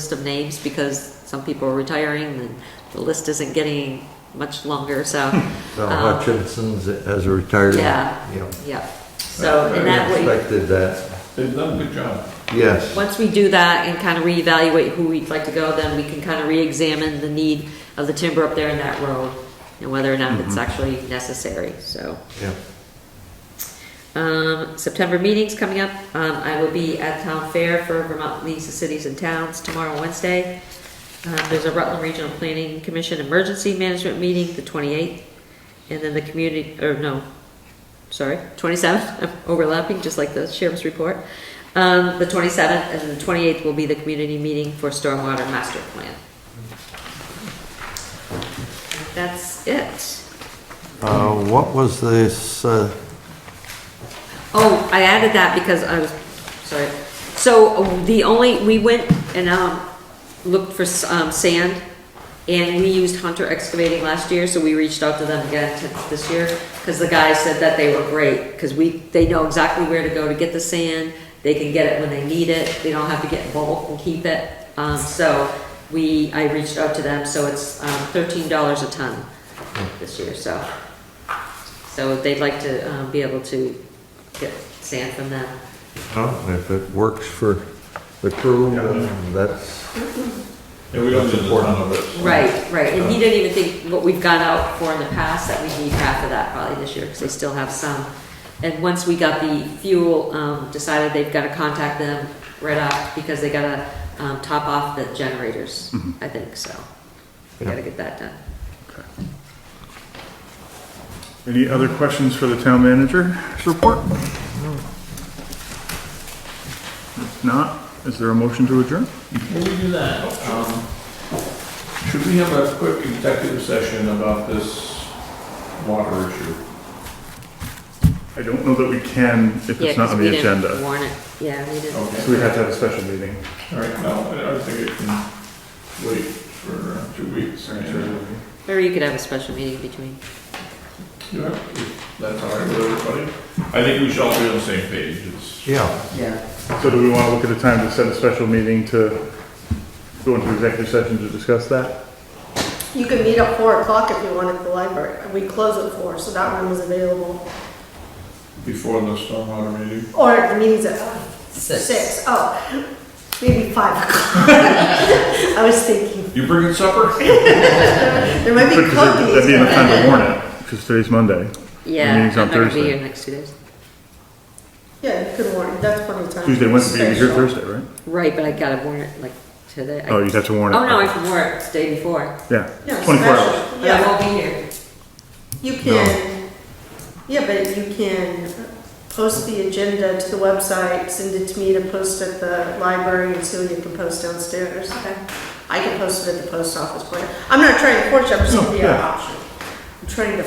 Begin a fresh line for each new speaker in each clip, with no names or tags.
list of names because some people are retiring and the list isn't getting much longer, so.
Now
um,
Hutchinson's as a retired.
Yeah.
you know,
Yeah, so
I
in that way,
Expected that,
They've done a good job.
yes.
once we do that and kind of reevaluate who we'd like to go, then we can kind of reexamine the need of the timber up there in that road and whether or not it's actually necessary, so.
Yeah.
Um, September meeting's coming up. Um, I will be at Town Fair for Vermont Leagues of Cities and Towns tomorrow, Wednesday. Um, there's a Rutland Regional Planning Commission Emergency Management Meeting, the twenty-eighth. And then the community, or no, sorry, twenty-seventh, I'm overlapping, just like the sheriff's report. Um, the twenty-seventh and the twenty-eighth will be the community meeting for Stormwater Master Plan. That's it.
Uh, what was this, uh,
Oh, I added that because I was, sorry. So uh, the only, we went and um, looked for s- um, sand, and we used Hunter Excavating last year, so we reached out to them again t- this year, because the guy said that they were great, because we, they know exactly where to go to get the sand, they can get it when they need it, they don't have to get bulk and keep it. Um, So we, I reached out to them, so it's um, thirteen dollars a ton this year, so. So they'd like to um, be able to get sand from them.
oh, if it works for the crew, then that's,
Yeah, we don't need a ton of it.
Right, right, and he
Oh.
didn't even think what we've gone out for in the past, that we need half of that probably this year, because they still have some. And once we got the fuel, um, decided they've got to contact them right off, because they got to, um, top off the generators,
Mm-hmm.
I think, so. We got to get that done.
Any other questions for the town manager's report? If not, is there a motion to adjourn?
Before we do that, um, should we have a quick executive session about this water issue?
I don't know that we can if
Yeah,
it's not
'cause
on
we
the
didn't
agenda.
Warn it, yeah, we didn't.
So we
Okay,
have to have a special meeting.
all right, no, I don't think it can wait for uh, two weeks. and-
Or you could have a special meeting between.
Yeah, That's all right with everybody? I think we should all be on the same page. It's-
yeah.
So do we want to look at a time to set a special meeting to go into executive session to discuss that?
You could meet at four o'clock if you wanted at the library. We close at four, so that room is available.
Before the stormwater meeting?
Or the meeting's at six. Oh, maybe five o'clock. I was thinking,
You bringing supper?
there might be
Because That'd be enough
cookies.
time to warn it, because today's Monday.
Yeah,
meeting's
I'm
on
not gonna be
Thursday.
here next two days.
Yeah, you could warn, it. that's plenty of time.
Tuesday, Wednesday, you'd be here
Special.
Thursday, right?
Right, but I got to warn it like today.
Oh, you'd have to warn it.
Oh, no, I can warn it the day before.
Yeah,
No,
24
special.
hours.
But I
Yeah,
won't be here.
you can, yeah, but you can post the agenda to the website, send it to me to post at the library, and Celia can post downstairs. I can post it at the post office, but I'm not trying to force you, I'm just giving you an
No, yeah.
option. I'm trying to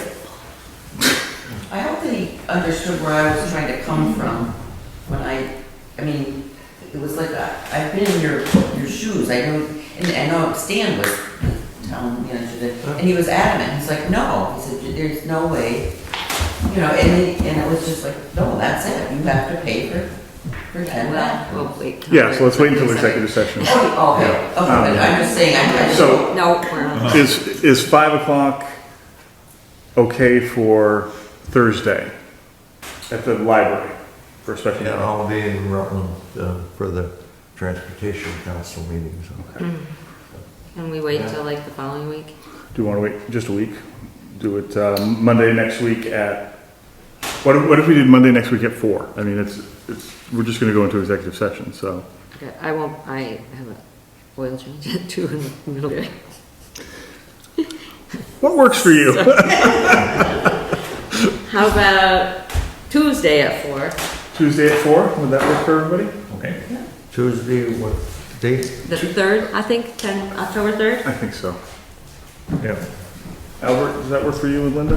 I hope that he understood where I was trying to come from when I, I mean, it was like, I- I've been in your, your shoes, I know, and I know Stan was the town manager, then, and he was adamant, he's like, no, he said, there's no way, you know, and, he- and it was just like, no, that's it, you have to pay for, for ten
Well,
that.
we'll wait. till
Yeah, so let's wait until
Thursday.
executive session.
Oh, okay, okay, but I'm just saying, I, I just.
So-
No, we're not.
Is, is five o'clock okay for Thursday at the library for a special
And
meeting?
I'll be in Rutland uh, for the transportation council meeting,
Uh-huh.
so.
Can we wait till like the following week?
Do you want to wait just a week? Do it uh, Monday next week at, what if, what if we did Monday next week at four? I mean, it's, it's, we're just going to go into executive session, so.
Okay, I won't, I have a oil change at two in the middle of the day.
What works for you?
How about Tuesday at four,
Tuesday at four, would that work for everybody?
Okay.
Tuesday, what date?
the third, I think, ten, October third?
I think so. Yeah. Albert, does that work for you and Linda?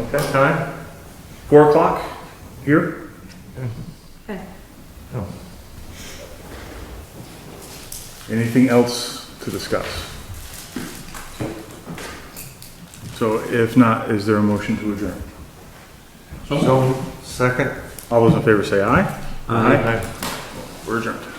Okay, time? Four o'clock here?
Oh,
Anything else to discuss? So if not, is there a motion to adjourn?
So
So, second?
All those in favor say aye. We're adjourned.